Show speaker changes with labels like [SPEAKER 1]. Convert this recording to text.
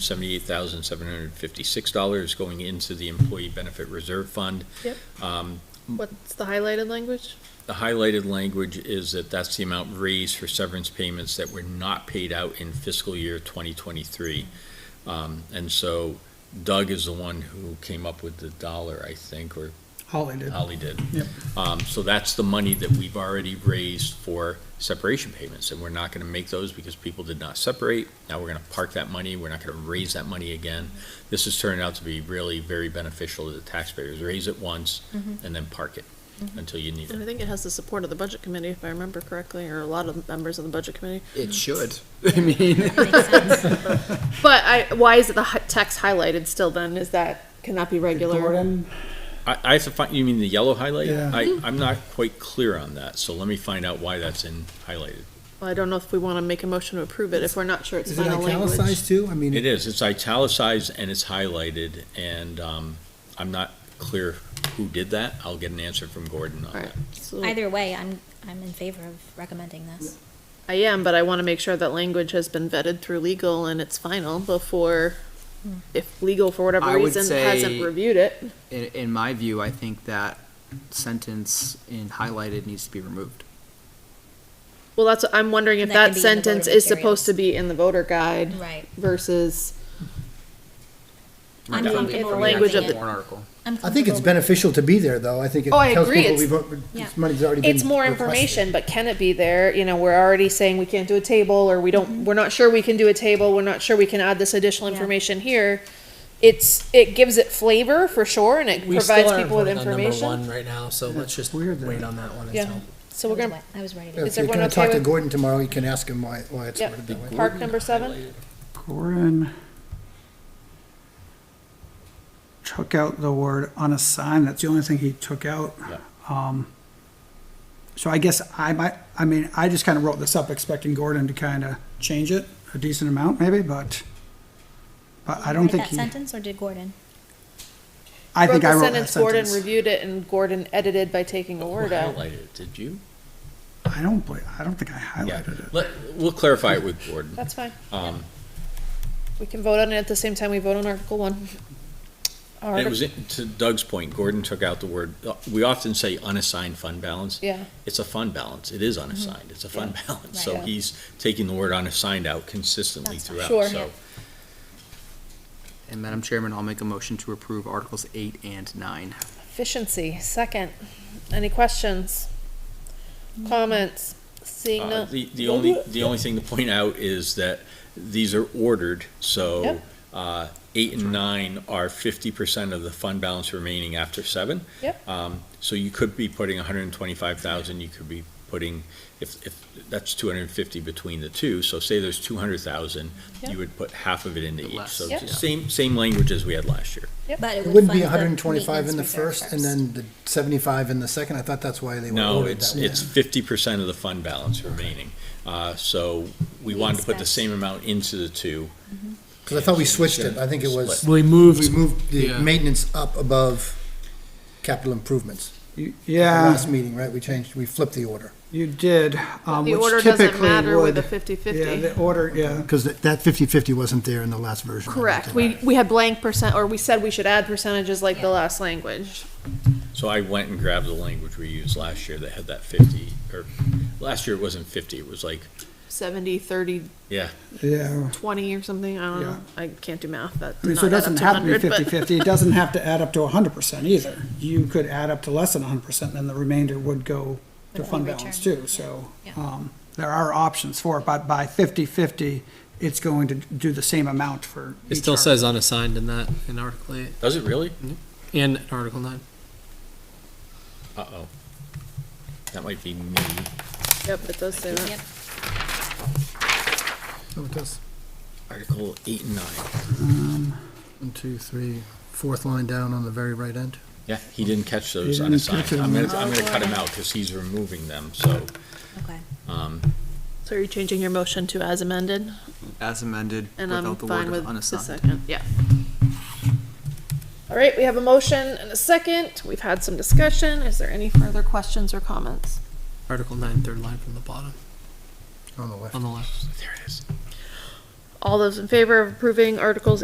[SPEAKER 1] seventy-eight thousand, seven hundred and fifty-six dollars going into the Employee Benefit Reserve Fund.
[SPEAKER 2] Yep.
[SPEAKER 1] Um,
[SPEAKER 2] What's the highlighted language?
[SPEAKER 1] The highlighted language is that that's the amount raised for severance payments that were not paid out in fiscal year 2023. Um, And so Doug is the one who came up with the dollar, I think, or
[SPEAKER 3] Holly did.
[SPEAKER 1] Holly did.
[SPEAKER 3] Yep.
[SPEAKER 1] Um, So that's the money that we've already raised for separation payments, and we're not going to make those because people did not separate. Now we're going to park that money, we're not going to raise that money again. This has turned out to be really very beneficial to the taxpayers. Raise it once
[SPEAKER 3] Mm-hmm.
[SPEAKER 1] and then park it until you need it.
[SPEAKER 2] And I think it has the support of the budget committee, if I remember correctly, or a lot of members of the budget committee.
[SPEAKER 4] It should. I mean,
[SPEAKER 2] But I, why is it the hi- text highlighted still then? Is that, can that be regular?
[SPEAKER 3] Gordon,
[SPEAKER 1] I, I have to find, you mean the yellow highlight?
[SPEAKER 3] Yeah.
[SPEAKER 1] I, I'm not quite clear on that, so let me find out why that's in highlighted.
[SPEAKER 2] Well, I don't know if we want to make a motion to approve it if we're not sure it's
[SPEAKER 3] is it
[SPEAKER 2] final language.
[SPEAKER 3] italicized too? I mean,
[SPEAKER 1] It is, it's italicized and it's highlighted, and, um, I'm not clear who did that. I'll get an answer from Gordon on
[SPEAKER 2] All right,
[SPEAKER 1] that.
[SPEAKER 2] so
[SPEAKER 5] Either way, I'm, I'm in favor of recommending this.
[SPEAKER 2] I am, but I want to make sure that language has been vetted through legal and it's final before, Hmm. if legal for whatever
[SPEAKER 4] I would
[SPEAKER 2] reason hasn't
[SPEAKER 4] say-
[SPEAKER 2] reviewed it.
[SPEAKER 4] in, in my view, I think that sentence in highlighted needs to be removed.
[SPEAKER 2] Well, that's, I'm wondering if
[SPEAKER 5] And
[SPEAKER 2] that
[SPEAKER 5] that can be in the voter
[SPEAKER 2] sentence is supposed
[SPEAKER 5] materials.
[SPEAKER 2] to be in the voter guide
[SPEAKER 5] Right.
[SPEAKER 2] versus,
[SPEAKER 5] I'm
[SPEAKER 1] Yeah.
[SPEAKER 5] comfortable
[SPEAKER 2] In the
[SPEAKER 5] with
[SPEAKER 2] language of
[SPEAKER 5] having
[SPEAKER 2] the-
[SPEAKER 5] it.
[SPEAKER 4] Warrant article.
[SPEAKER 5] I'm
[SPEAKER 3] I think it's
[SPEAKER 5] comfortable
[SPEAKER 3] beneficial to be there, though. I think it
[SPEAKER 2] Oh, I
[SPEAKER 3] tells
[SPEAKER 2] agree.
[SPEAKER 3] people
[SPEAKER 2] It's-
[SPEAKER 3] we've, voted-
[SPEAKER 5] yeah.
[SPEAKER 3] this money's already been
[SPEAKER 2] it's more
[SPEAKER 3] requested.
[SPEAKER 2] information, but can it be there? You know, we're already saying we can't do a table, or we
[SPEAKER 6] Mm-hmm.
[SPEAKER 2] don't, we're not sure we can do a table, we're not sure we can add this additional
[SPEAKER 5] Yeah.
[SPEAKER 2] information here. It's, it gives it flavor for sure, and it
[SPEAKER 7] We still
[SPEAKER 2] provides
[SPEAKER 7] aren't
[SPEAKER 2] people with
[SPEAKER 7] voting on number
[SPEAKER 2] information.
[SPEAKER 7] one right now, so let's just
[SPEAKER 3] weird that-
[SPEAKER 7] wait on that one
[SPEAKER 2] Yeah.
[SPEAKER 7] until.
[SPEAKER 2] So we're
[SPEAKER 5] with
[SPEAKER 2] gonna,
[SPEAKER 5] what- I was ready to.
[SPEAKER 3] Yeah,
[SPEAKER 2] Is
[SPEAKER 3] If you're
[SPEAKER 2] everyone
[SPEAKER 3] gonna
[SPEAKER 2] okay
[SPEAKER 3] talk to
[SPEAKER 2] with-
[SPEAKER 3] Gordon tomorrow, you can ask him why, why it's
[SPEAKER 2] Yep.
[SPEAKER 3] worded that way.
[SPEAKER 2] park number seven,
[SPEAKER 6] Gordon, took out the word unassigned, that's the only thing he took out.
[SPEAKER 1] Yeah.
[SPEAKER 6] Um, So I guess I might, I mean, I just kind of wrote this up expecting Gordon to kind of change it a decent amount maybe, but, but I don't
[SPEAKER 5] Write
[SPEAKER 6] think
[SPEAKER 5] that
[SPEAKER 6] he,
[SPEAKER 5] sentence, or did Gordon?
[SPEAKER 6] I
[SPEAKER 2] wrote
[SPEAKER 6] think I
[SPEAKER 2] the
[SPEAKER 6] wrote that
[SPEAKER 2] sentence, Gordon
[SPEAKER 6] sentence.
[SPEAKER 2] reviewed it, and Gordon edited by taking a word out.
[SPEAKER 1] Highlighted it, did you?
[SPEAKER 6] I don't, believe- I don't think I
[SPEAKER 1] Yeah,
[SPEAKER 6] highlighted it.
[SPEAKER 1] let, we'll clarify it with Gordon.
[SPEAKER 2] That's fine.
[SPEAKER 1] Um,
[SPEAKER 2] We can vote on it at the same time we vote on Article One.
[SPEAKER 1] and it
[SPEAKER 2] Artic-
[SPEAKER 1] was, in- to Doug's point, Gordon took out the word, we often say unassigned fund balance.
[SPEAKER 2] Yeah,
[SPEAKER 1] It's a fund balance, it is unassigned, it's a fund balance, so
[SPEAKER 2] Mm-hmm. Right.
[SPEAKER 1] he's taking the word unassigned out consistently
[SPEAKER 5] That's fine.
[SPEAKER 1] throughout,
[SPEAKER 2] Sure.
[SPEAKER 1] so.
[SPEAKER 4] And Madam Chairman, I'll make a motion to approve Articles eight and nine.
[SPEAKER 2] efficiency, second. Any questions? Comments? Seeing
[SPEAKER 1] Uh,
[SPEAKER 2] none?
[SPEAKER 1] The, the only, the only thing to point out is that these are ordered, so,
[SPEAKER 2] Yep.
[SPEAKER 1] uh, eight and nine are fifty percent of the fund balance remaining after seven.
[SPEAKER 2] Yep.
[SPEAKER 1] Um, so you could be putting hundred and twenty-five thousand, you could be putting, if, if, that's two hundred and fifty between the two, so say there's two hundred thousand,
[SPEAKER 2] Yep.
[SPEAKER 1] you would put half of it into each,
[SPEAKER 4] less,
[SPEAKER 1] so
[SPEAKER 2] Yep.
[SPEAKER 1] it's the same, same language as we had last year.
[SPEAKER 5] But
[SPEAKER 3] It
[SPEAKER 5] it would
[SPEAKER 3] wouldn't
[SPEAKER 5] fund
[SPEAKER 3] be
[SPEAKER 5] the
[SPEAKER 3] hundred and twenty-five in the
[SPEAKER 5] maintenance reserve
[SPEAKER 3] first and then the seventy-five in the second. I thought that's why they were
[SPEAKER 1] No,
[SPEAKER 3] ordered
[SPEAKER 1] it's,
[SPEAKER 3] that way.
[SPEAKER 1] it's fifty percent of the fund balance remaining. Uh, so we
[SPEAKER 5] We
[SPEAKER 1] wanted to put the
[SPEAKER 5] expect-
[SPEAKER 1] same amount into the two.
[SPEAKER 3] Cause I thought we switched it. I think it was,
[SPEAKER 7] We
[SPEAKER 3] we
[SPEAKER 7] moved,
[SPEAKER 3] moved the
[SPEAKER 7] Yeah.
[SPEAKER 3] maintenance up above capital improvements.
[SPEAKER 6] You-
[SPEAKER 3] The
[SPEAKER 6] Yeah,
[SPEAKER 3] Last meeting, right? We changed, we flipped the order.
[SPEAKER 6] you did, um,
[SPEAKER 2] The order
[SPEAKER 6] which
[SPEAKER 2] doesn't
[SPEAKER 6] typically
[SPEAKER 2] matter with a
[SPEAKER 6] would. Yeah,
[SPEAKER 2] 50/50.
[SPEAKER 6] the order, yeah,
[SPEAKER 3] Cause that, that fifty-fifty wasn't there in the last version. I don't
[SPEAKER 2] Correct.
[SPEAKER 3] think.
[SPEAKER 2] We, we had blank percent, or we said we should add percentages like the
[SPEAKER 5] Yeah.
[SPEAKER 2] last language.
[SPEAKER 1] So I went and grabbed the language we used last year that had that fifty, or, last year it wasn't fifty, it was like,
[SPEAKER 2] Seventy, thirty,
[SPEAKER 1] yeah,
[SPEAKER 6] yeah.
[SPEAKER 2] twenty or something. I don't
[SPEAKER 6] Yeah.
[SPEAKER 2] know. I can't do math. That
[SPEAKER 6] I mean,
[SPEAKER 2] did
[SPEAKER 6] so it
[SPEAKER 2] not add
[SPEAKER 6] doesn't
[SPEAKER 2] up to
[SPEAKER 6] have to be
[SPEAKER 2] hundred, but.
[SPEAKER 6] fifty-fifty, it doesn't have to add up to hundred percent either. You could add up to less than hundred percent, and the remainder would go to
[SPEAKER 5] Would be
[SPEAKER 6] fund balance
[SPEAKER 5] returned,
[SPEAKER 6] too, so,
[SPEAKER 5] yeah.
[SPEAKER 6] um, there are options for it, but by fifty-fifty, it's going to do the same amount for
[SPEAKER 7] it
[SPEAKER 6] each
[SPEAKER 7] still
[SPEAKER 6] article.
[SPEAKER 7] says unassigned in that, in Article eight
[SPEAKER 1] does it really?
[SPEAKER 7] and in Article nine.
[SPEAKER 1] Uh-oh. That might be me.
[SPEAKER 2] Yep, it does say that.
[SPEAKER 5] Yep.
[SPEAKER 3] Oh, it does.
[SPEAKER 1] Article eight and nine.
[SPEAKER 6] Um,
[SPEAKER 3] One, two, three, fourth line down on the very right end.
[SPEAKER 1] Yeah, he didn't catch
[SPEAKER 6] He
[SPEAKER 1] those
[SPEAKER 6] didn't
[SPEAKER 1] unassigned.
[SPEAKER 6] catch 'em.
[SPEAKER 1] I'm gonna, I'm gonna cut him out because he's removing them, so,
[SPEAKER 5] Okay.
[SPEAKER 1] um,
[SPEAKER 2] So are you changing your motion to as amended?
[SPEAKER 4] As amended,
[SPEAKER 2] And I'm
[SPEAKER 4] without the word
[SPEAKER 2] fine with the
[SPEAKER 4] unassigned.
[SPEAKER 2] second, yeah. All right, we have a motion and a second. We've had some discussion. Is there any further questions or comments?
[SPEAKER 7] Article nine, third line from the bottom,
[SPEAKER 3] On the left.
[SPEAKER 7] on the left.
[SPEAKER 1] there it is.
[SPEAKER 2] All those in favor of approving Articles